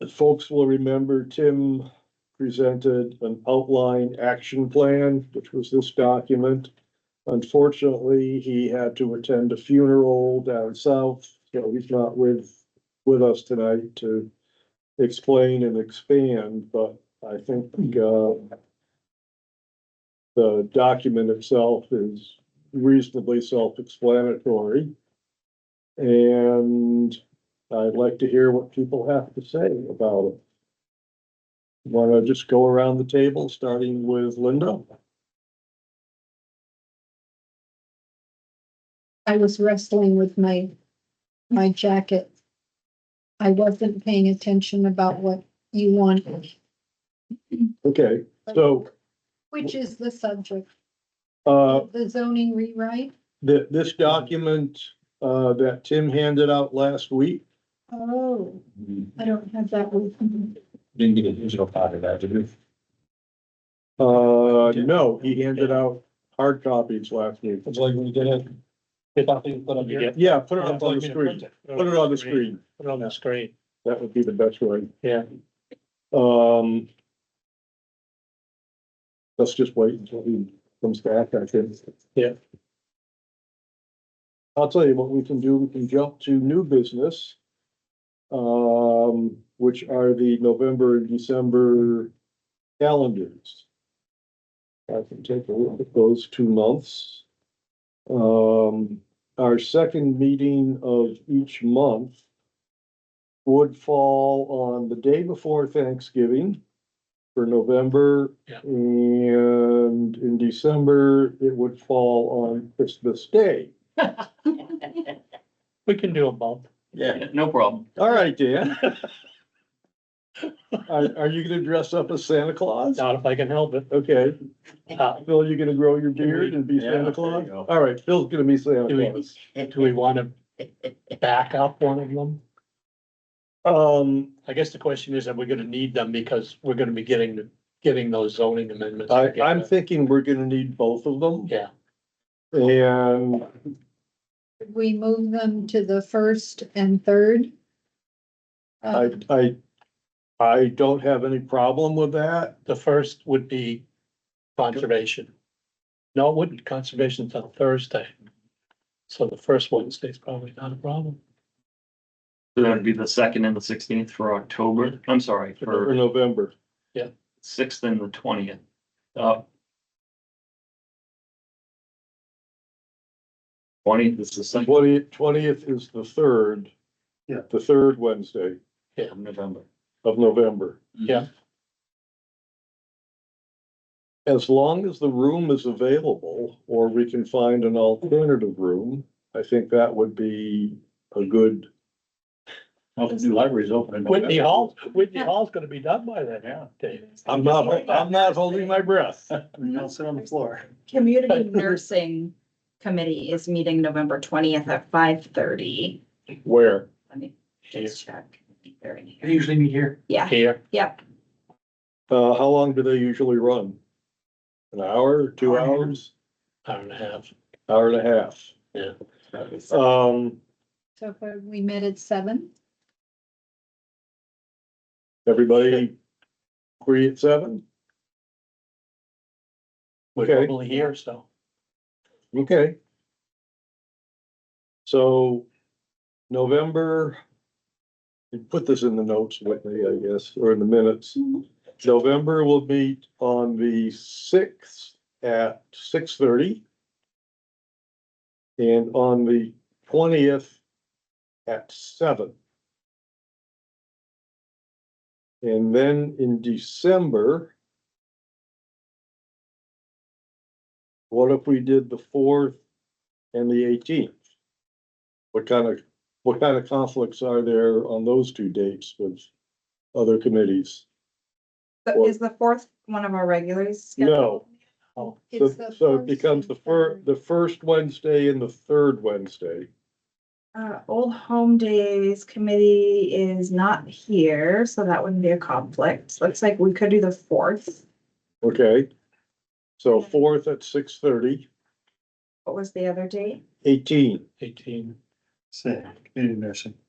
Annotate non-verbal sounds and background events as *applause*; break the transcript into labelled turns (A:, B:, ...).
A: As folks will remember, Tim presented an outline action plan, which was this document. Unfortunately, he had to attend a funeral down south, so he's not with, with us tonight to explain and expand, but I think, uh, the document itself is reasonably self-explanatory. And I'd like to hear what people have to say about it. Want to just go around the table, starting with Linda?
B: I was wrestling with my, my jacket. I wasn't paying attention about what you wanted,
A: Okay, so,
B: which is the subject,
A: uh,
B: the zoning rewrite.
A: th- this document, uh, that Tim handed out last week,
B: Oh, I don't have that with me.
C: Didn't get a digital copy of that, did we?
A: uh, no, he handed out hard copies last week.
C: It's like when you get it. If I think put up here.
A: Yeah, put it up on the screen, put it on the screen,
C: Put it on the screen.
A: that would be the best way.
C: Yeah.
A: Um. Let's just wait until he comes back, I think.
C: Yeah.
A: I'll tell you what we can do, we can jump to new business. Um, which are the November and December calendars. I can take a look at those two months. Um, our second meeting of each month would fall on the day before Thanksgiving for November.
C: Yeah.
A: And in December, it would fall on Christmas Day.
C: We can do a bump.
D: Yeah, no problem.
A: All right,
D: *laughs*
A: Dan. Are, are you gonna dress up as Santa Claus?
C: Not if I can help it.
A: Okay,
C: Uh,
A: Phil, you gonna grow your beard and be
D: Yeah, there
A: Santa
D: you
A: Claus?
D: go.
A: All right, Phil's gonna be Santa
C: Do we-
A: Claus.
C: do we wanna back up one of them?
A: Um,
C: I guess the question is, are we gonna need them because we're gonna be getting, the getting those zoning amendments?
A: I,
C: together?
A: I'm thinking we're gonna need both of them
C: Yeah,
A: and
B: We move them to the first and third.
A: I,
B: Uh,
A: I, I don't have any problem with that.
C: the first would be conservation. No, it wouldn't, conservation's on Thursday. So the first Wednesday's probably not a problem.
D: So That'd be the second and the sixteenth for October, I'm sorry,
A: For
D: for
A: November.
D: sixth and the twentieth. Uh. Twentieth is the second
A: Twenty, twentieth is the third.
C: Yeah.
A: The third Wednesday
D: of November.
A: of November.
C: Yeah.
A: As long as the room is available or we can find an alternative room, I think that would be a good.
D: Well, the new library's open.
C: Whitney Hall, Whitney Hall's gonna be done by then, yeah, Dave.
A: I'm not, I'm not holding my breath.
C: *laughs* I'll sit on the floor.
E: Community Nursing Committee is meeting November twentieth at five thirty.
A: Where?
E: Let me just check. They're in here.
D: They usually meet here.
E: Yeah,
C: Here,
E: yep.
A: Uh, how long do they usually run? An hour, two
D: Hour and a half.
A: hours,
C: hour and a half.
A: hour and a half? Um,
B: So far, we met at seven.
A: everybody free at seven?
C: We're
A: Okay.
C: probably here, so.
A: Okay. So November, you put this in the notes, Whitney, I guess, or in the minutes.
E: Mm-hmm.
A: November will meet on the sixth at six thirty. And on the twentieth at seven. And then in December, what if we did the fourth and the eighteenth? What kind of, what kind of conflicts are there on those two dates with other committees?
E: So Is the fourth one of our regulars? scheduled?
A: No.
C: Oh,
A: So,
B: It's the
A: so it
B: first
A: becomes the
B: and
A: fir,
B: third.
A: the first Wednesday and the third Wednesday.
E: Uh, Old Home Days Committee is not here, so that wouldn't be a conflict. Looks like we could do the fourth.
A: Okay? So fourth at six thirty,
E: What was the other date?
A: eighteen.
C: eighteen.
F: Sick, community nursing.